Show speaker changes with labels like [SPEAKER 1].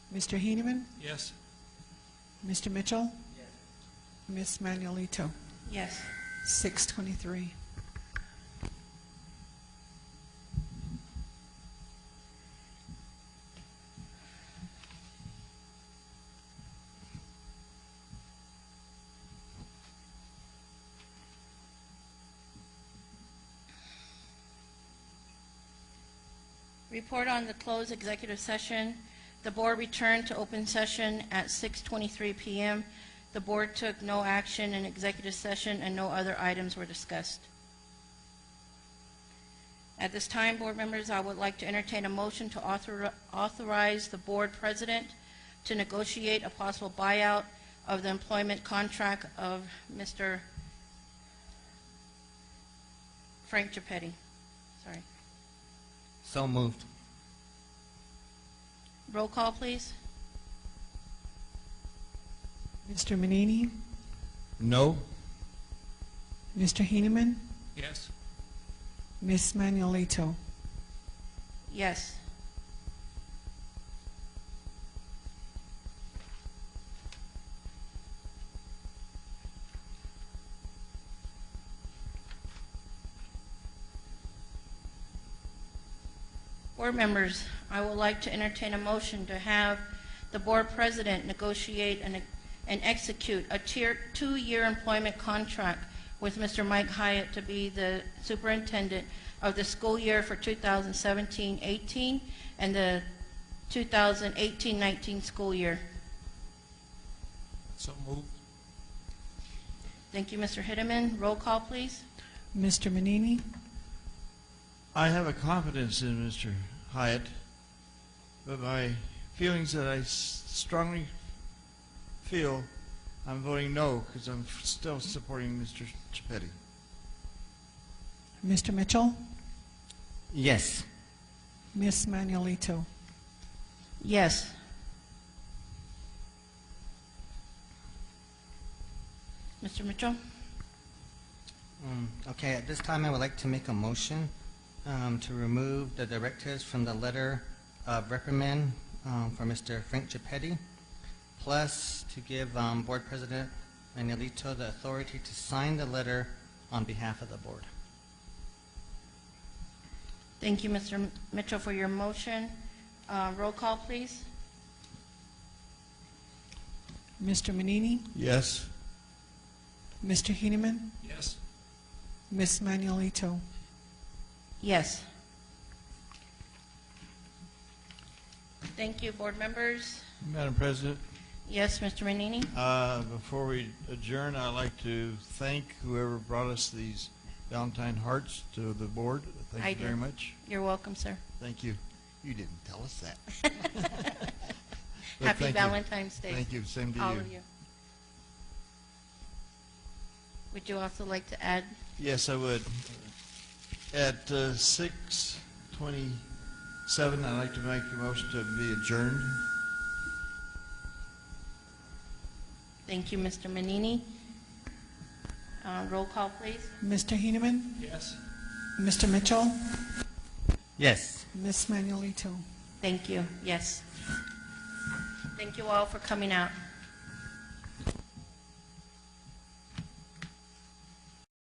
[SPEAKER 1] Mr. Heeneman,
[SPEAKER 2] Yes.
[SPEAKER 1] Mr. Mitchell? Miss Ms. Manuelito?
[SPEAKER 3] Yes.
[SPEAKER 1] Six twenty-three.
[SPEAKER 3] Report on the closed executive session. The board returned to open session at 6:23 PM. The board took no action in executive session, and no other items were discussed. At this time, board members, I would like to entertain a motion to author- authorize the board president to negotiate a possible buyout of the employment contract of Mr. Frank Gepetti. Sorry.
[SPEAKER 4] So moved.
[SPEAKER 3] Roll call, please.
[SPEAKER 1] Mr. Manini,
[SPEAKER 4] No.
[SPEAKER 1] Mr. Heeneman,
[SPEAKER 2] Yes.
[SPEAKER 1] Miss Manuelito?
[SPEAKER 3] Yes. Board members, I would like to entertain a motion to have the board president negotiate and, and execute a tier, two-year employment contract with Mr. Mike Hyatt to be the superintendent of the school year for 2017-18 and the 2018-19 school year.
[SPEAKER 2] So moved.
[SPEAKER 3] Thank you, Mr. Hideman. Roll call, please.
[SPEAKER 1] Mr. Manini,
[SPEAKER 5] I have a confidence in Mr. Hyatt, but my feelings that I s- strongly feel I'm voting no because I'm f- still supporting Mr. Chapetti.
[SPEAKER 1] Mr. Mitchell,
[SPEAKER 4] Yes.
[SPEAKER 1] Miss Manuelito?
[SPEAKER 3] Yes. Mr. Mitchell?
[SPEAKER 4] Um, Okay, at this time, I would like to make a motion um, to remove the directors from the letter of reprimand um, for Mr. Frank Gepetti, plus to give um, Board President Manuelito the authority to sign the letter on behalf of the board.
[SPEAKER 3] Thank you, Mr. Mitchell, for your motion. Uh, Roll call, please.
[SPEAKER 1] Mr. Manini,
[SPEAKER 5] Yes.
[SPEAKER 1] Mr. Heeneman,
[SPEAKER 2] Yes.
[SPEAKER 1] Miss Manuelito?
[SPEAKER 3] Yes. Thank you, board members.
[SPEAKER 5] Madam President,
[SPEAKER 3] Yes, Mr. Manini?
[SPEAKER 5] uh, before we adjourn, I'd like to thank whoever brought us these Valentine hearts to the board. Thank
[SPEAKER 3] I
[SPEAKER 5] you
[SPEAKER 3] did.
[SPEAKER 5] very much.
[SPEAKER 3] You're welcome, sir.
[SPEAKER 5] Thank you. You didn't tell us that. But
[SPEAKER 3] Happy
[SPEAKER 5] thank you.
[SPEAKER 3] Valentine's Day.
[SPEAKER 5] Thank you. Same to
[SPEAKER 3] All of you. Would you also like to add?
[SPEAKER 5] Yes, I would. At uh, 6:27, I'd like to make a motion to be adjourned.
[SPEAKER 3] Thank you, Mr. Manini. Uh, Roll call, please.
[SPEAKER 1] Mr. Heeneman,
[SPEAKER 2] Yes.
[SPEAKER 1] Mr. Mitchell,
[SPEAKER 4] Yes.
[SPEAKER 1] Miss Manuelito?
[SPEAKER 3] Thank you, yes. Thank you all for coming out.